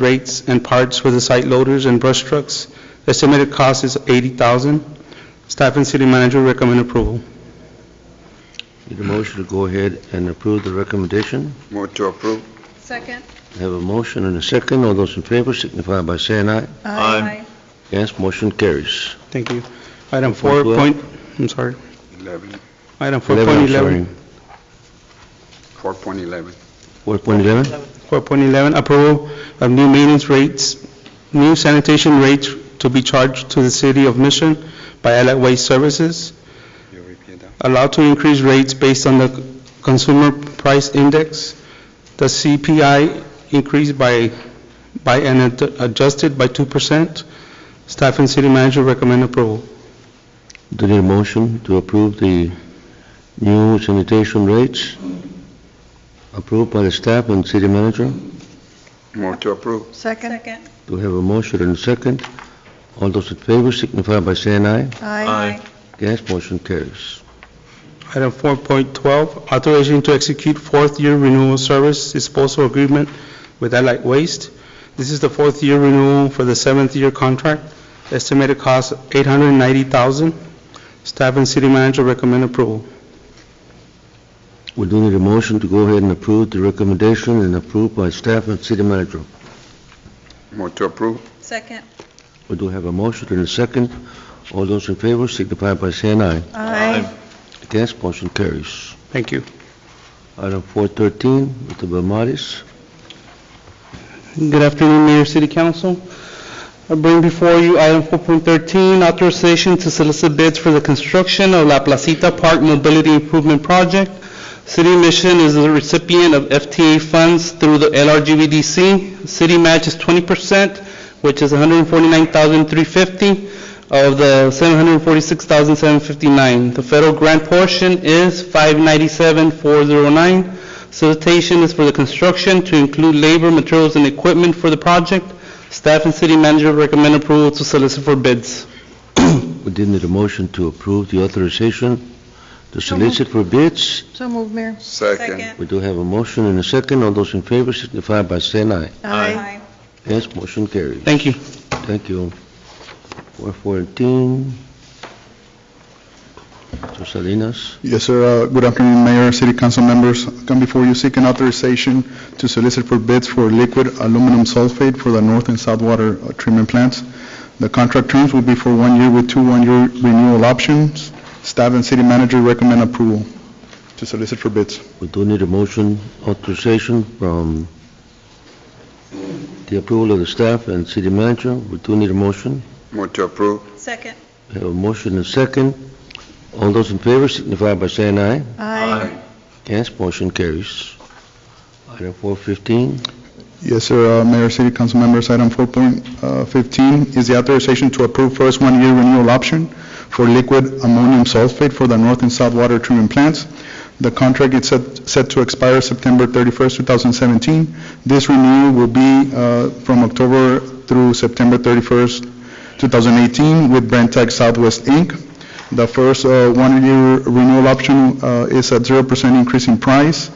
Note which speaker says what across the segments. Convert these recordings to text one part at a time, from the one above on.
Speaker 1: rates and parts for the site loaders and brush trucks. Estimated cost is 80000 Staff and city manager recommend approval.
Speaker 2: Need a motion to go ahead and approve the recommendation.
Speaker 3: Move to approve.
Speaker 4: Second.
Speaker 2: I Have a motion and a second. All those in favor signify by saying aye.
Speaker 3: Aye.
Speaker 2: Against, motion carries.
Speaker 1: Thank you. Item
Speaker 2: Four
Speaker 1: four
Speaker 2: point-
Speaker 1: point, I'm sorry,
Speaker 3: Eleven,
Speaker 1: item
Speaker 2: Eleven, I'm sorry.
Speaker 1: 4.11.
Speaker 3: four point eleven.
Speaker 2: 4.11?
Speaker 1: 4.11, approval of new maintenance rates, new sanitation rates to be charged to the city of Mission by Allied Waste Services.
Speaker 3: You repeat that.
Speaker 1: allowed to increase rates based on the consumer price index. The CPI increased by, by, and ad- adjusted by 2%. Staff and city manager recommend approval.
Speaker 2: Do need a motion to approve the new sanitation rates approved by the staff and city manager?
Speaker 3: Move to approve.
Speaker 4: Second. Second.
Speaker 2: Do we have a motion and a second? All those in favor signify by saying aye.
Speaker 4: Aye.
Speaker 2: Against, motion carries.
Speaker 1: Item 4.12, authorization to execute fourth-year renewal service disposal agreement with Allied Waste. This is the fourth-year renewal for the seventh-year contract. Estimated cost 890000 Staff and city manager recommend approval.
Speaker 2: We do need a motion to go ahead and approve the recommendation and approved by staff and city manager.
Speaker 3: Move to approve.
Speaker 4: Second.
Speaker 2: We do have a motion and a second. All those in favor signify by saying aye.
Speaker 4: Aye.
Speaker 2: Against, motion carries.
Speaker 1: Thank you.
Speaker 2: Item 413, Mr. Belmontes.
Speaker 1: Good afternoon, Mayor, City Council. I bring before you item 4.13, authorization to solicit bids for the construction of La Placita Park Mobility Improvement Project. City Mission is the recipient of FTA funds through the LRGVDC. City match is 20%, which is $149,350 of the $746,759. The federal grant portion is $597,409. Solicitation is for the construction to include labor, materials, and equipment for the project. Staff and city manager recommend approval to solicit for bids.
Speaker 2: We did need a motion to approve the authorization to solicit for bids.
Speaker 5: So moved, Mayor.
Speaker 3: Second.
Speaker 2: We do have a motion and a second. All those in favor signify by saying aye.
Speaker 4: Aye.
Speaker 2: Yes, motion carries.
Speaker 1: Thank you.
Speaker 2: Thank you. 414, Mr. Salinas.
Speaker 6: Yes, sir. Uh, Good afternoon, Mayor, City Council members. Come before you seeking authorization to solicit for bids for liquid aluminum sulfate for the north and south water uh, treatment plants. The contract terms will be for one year with two one-year renewal options. Staff and city manager recommend approval to solicit for bids.
Speaker 2: We do need a motion authorization from the approval of the staff and city manager. We do need a motion.
Speaker 3: Move to approve.
Speaker 4: Second.
Speaker 2: We have a motion and a second. All those in favor signify by saying aye.
Speaker 5: Aye.
Speaker 2: Yes, motion carries. Item 415,
Speaker 6: Yes, sir, Uh, Mayor, City Council members, item 4.15 is the authorization to approve first one-year renewal option for liquid ammonium sulfate for the north and south water treatment plants. The contract is set set to expire September 31st, 2017. This renewal will be uh, from October through September 31st, 2018, with Brent Tech Southwest, Inc. The first uh, one-year renewal option uh, is at 0% increase in price,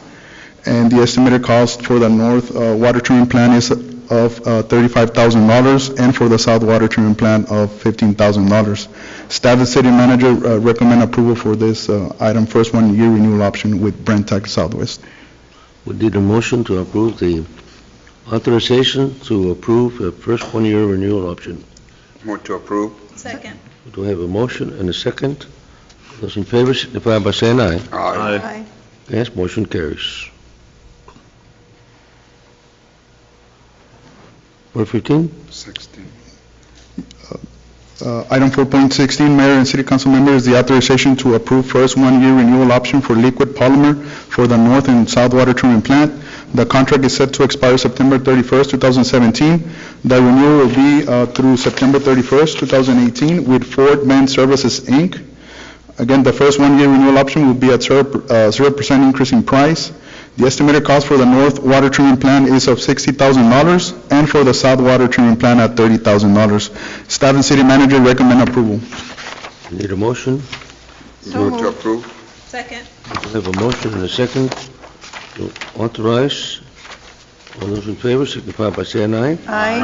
Speaker 6: and the estimated cost for the north uh, water treatment plant is of uh, $35,000, and for the south water treatment plant of $15,000. Staff and city manager uh, recommend approval for this uh, item, first one-year renewal option with Brent Tech Southwest.
Speaker 2: we did a motion to approve the authorization to approve a first one-year renewal option.
Speaker 3: Move to approve.
Speaker 4: Second.
Speaker 2: We do have a motion and a second. Those in favor signify by saying aye.
Speaker 3: Aye.
Speaker 5: Aye.
Speaker 2: Yes, motion carries. 415,
Speaker 3: Sixteen.
Speaker 6: Uh, Item 4.16, Mayor and City Council members, the authorization to approve first one-year renewal option for liquid polymer for the north and south water treatment plant. The contract is set to expire September 31st, 2017. The renewal will be uh, through September 31st, 2018 with Ford Man Services, Inc. Again, the first one-year renewal option will be at 0% increase in price. The estimated cost for the north water treatment plant is of $60,000, and for the south water treatment plant at $30,000. Staff and city manager recommend approval.
Speaker 2: we need a motion?
Speaker 5: So
Speaker 3: Move to
Speaker 5: moved.
Speaker 3: approve.
Speaker 4: Second.
Speaker 2: We have a motion and a second to authorize All those in favor signify by saying aye.
Speaker 4: Aye.